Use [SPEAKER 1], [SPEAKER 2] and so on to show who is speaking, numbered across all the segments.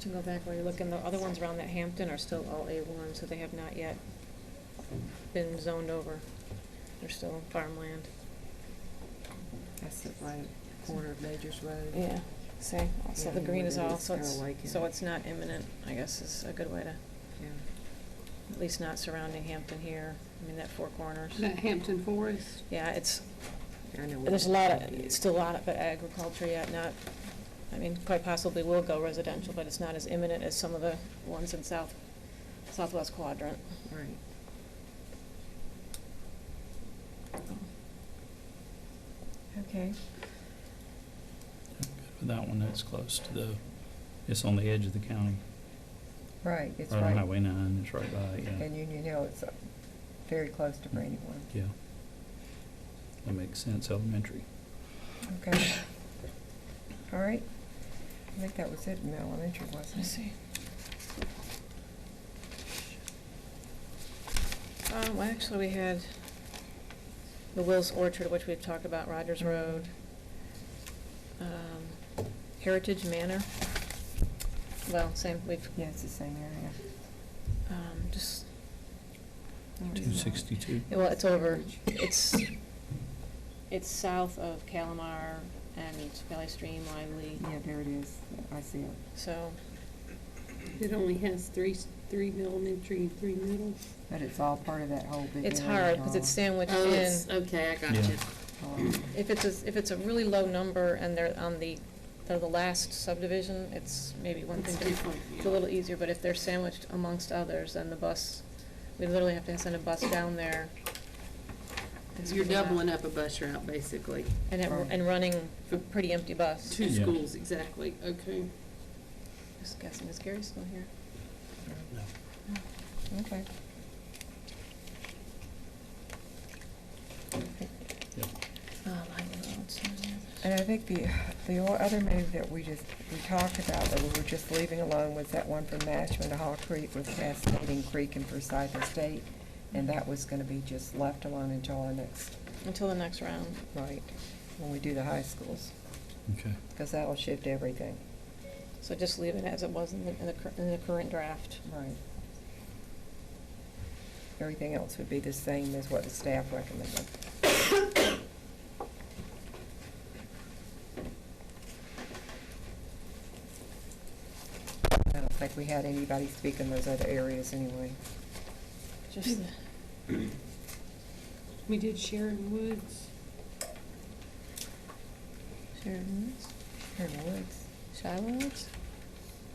[SPEAKER 1] can go back while you're looking, the other ones around that Hampton are still all A one, so they have not yet been zoned over. They're still farmland.
[SPEAKER 2] That's the right corner of Majors Road.
[SPEAKER 1] Yeah, see, so
[SPEAKER 2] Yeah,
[SPEAKER 1] the green is
[SPEAKER 2] they're-
[SPEAKER 1] all, so it's,
[SPEAKER 2] they're awake
[SPEAKER 1] so
[SPEAKER 2] in-
[SPEAKER 1] it's not imminent, I guess is a good way to,
[SPEAKER 2] Yeah.
[SPEAKER 1] at least not surrounding Hampton here, I mean, that four corners.
[SPEAKER 3] That Hampton Forest.
[SPEAKER 1] Yeah, it's,
[SPEAKER 2] I know what
[SPEAKER 1] there's a
[SPEAKER 2] you're
[SPEAKER 1] lot
[SPEAKER 2] talking
[SPEAKER 1] of,
[SPEAKER 2] about.
[SPEAKER 1] still a lot of agriculture yet, not, I mean, quite possibly will go residential, but it's not as imminent as some of the ones in south, southwest quadrant.
[SPEAKER 2] Right.
[SPEAKER 1] Okay.
[SPEAKER 4] But That one, that's close to the, it's on the edge of the county.
[SPEAKER 5] Right, it's
[SPEAKER 4] on
[SPEAKER 5] right.
[SPEAKER 4] Highway 9, it's right by, it, yeah,
[SPEAKER 5] And Union Hill, it's uh, very close to Brandywine.
[SPEAKER 4] yeah. That makes sense, elementary.
[SPEAKER 5] Okay. All right. I think that was it in elementary,
[SPEAKER 1] Let's
[SPEAKER 5] wasn't it?
[SPEAKER 1] see. Um, well, actually, we had the Will's Orchard, which we've talked about, Rogers Road, um, Heritage Manor. Well, same, we've,
[SPEAKER 5] Yeah, it's the same area.
[SPEAKER 1] um, just,
[SPEAKER 5] Where is it?
[SPEAKER 4] 262.
[SPEAKER 1] well, it's over, it's, it's south of Calamar and Valley Stream, Lively,
[SPEAKER 5] Yeah, there it is. I see it.
[SPEAKER 1] so,
[SPEAKER 3] It only has three, s- three elementary and three middle.
[SPEAKER 5] But it's all part of that whole big area.
[SPEAKER 1] it's hard, because it's sandwiched
[SPEAKER 3] Oh,
[SPEAKER 1] in.
[SPEAKER 3] okay, I
[SPEAKER 4] got Yeah. you.
[SPEAKER 5] Oh,
[SPEAKER 1] If it's, a- if it's a really low number and they're on the, they're the last subdivision, it's maybe one
[SPEAKER 3] It's
[SPEAKER 1] thing, to-
[SPEAKER 3] different,
[SPEAKER 1] it's a little easier, but if they're sandwiched amongst others, then the bus, we literally have to send a bus down there. It's
[SPEAKER 3] You're
[SPEAKER 1] really not-
[SPEAKER 3] doubling up a bus route, basically.
[SPEAKER 1] And, it- and running a pretty empty bus.
[SPEAKER 3] Two
[SPEAKER 4] Yeah.
[SPEAKER 3] schools, exactly, okay.
[SPEAKER 1] Just guessing, is Gary still here?
[SPEAKER 5] Okay.
[SPEAKER 1] Oh, I know, it's not here.
[SPEAKER 5] And I think the, the o- other move that we just, we talked about, that we were just leaving alone, was that one from Mashman to Hall Creek, was past Meeting Creek and Forsyth Estate, and that was gonna be just left alone until our next,
[SPEAKER 1] Until the next round.
[SPEAKER 5] right, when we do the high schools,
[SPEAKER 4] Okay.
[SPEAKER 5] because that'll shift everything.
[SPEAKER 1] So just leave it as it was in the, in the, cur- in the current draft.
[SPEAKER 5] Right. Everything else would be the same as what the staff recommended. I don't think we had anybody speak in those other areas anyway.
[SPEAKER 1] Just, the-
[SPEAKER 3] We did Sharon Woods.
[SPEAKER 1] Sharon Woods,
[SPEAKER 5] Sharon Woods,
[SPEAKER 1] Shiloh Woods?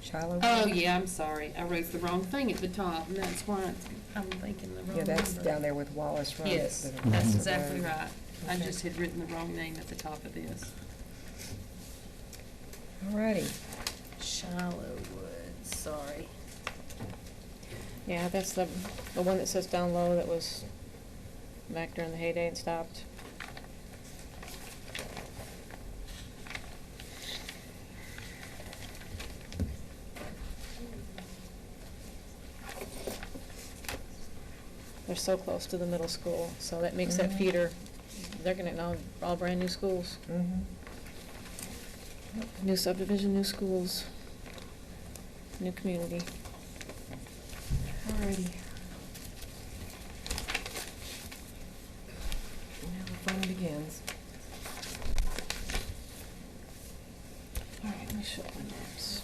[SPEAKER 5] Shiloh.
[SPEAKER 3] Oh,
[SPEAKER 5] Woods?
[SPEAKER 3] yeah, I'm sorry, I wrote the wrong thing at the top, and that's why it's- I'm thinking the wrong number.
[SPEAKER 5] Yeah, that's down there with Wallace Road.
[SPEAKER 3] Yes,
[SPEAKER 5] the-
[SPEAKER 3] that's
[SPEAKER 4] Mhm.
[SPEAKER 3] exactly right. I
[SPEAKER 5] Okay.
[SPEAKER 3] just had written the wrong name at the top of this.
[SPEAKER 5] All righty.
[SPEAKER 3] Shiloh Woods, sorry.
[SPEAKER 1] Yeah, that's the, the one that says down low that was back during the heyday and stopped. They're so close to the middle school, so that makes that
[SPEAKER 5] Mhm.
[SPEAKER 1] feeder, they're gonna, all, all brand-new schools.
[SPEAKER 5] Mhm.
[SPEAKER 1] New subdivision, new schools, new community.
[SPEAKER 5] Alrighty. Now the fun begins.
[SPEAKER 1] All right, let me show my maps.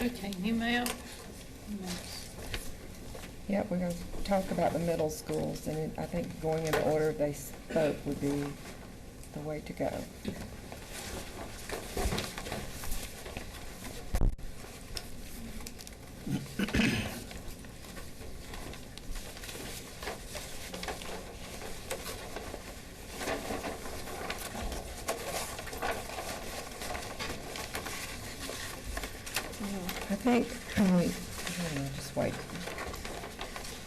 [SPEAKER 3] Okay, new map.
[SPEAKER 5] Yep, we're gonna talk about the middle schools, and it- I think going in the order they spoke would be the way to go. I think, um,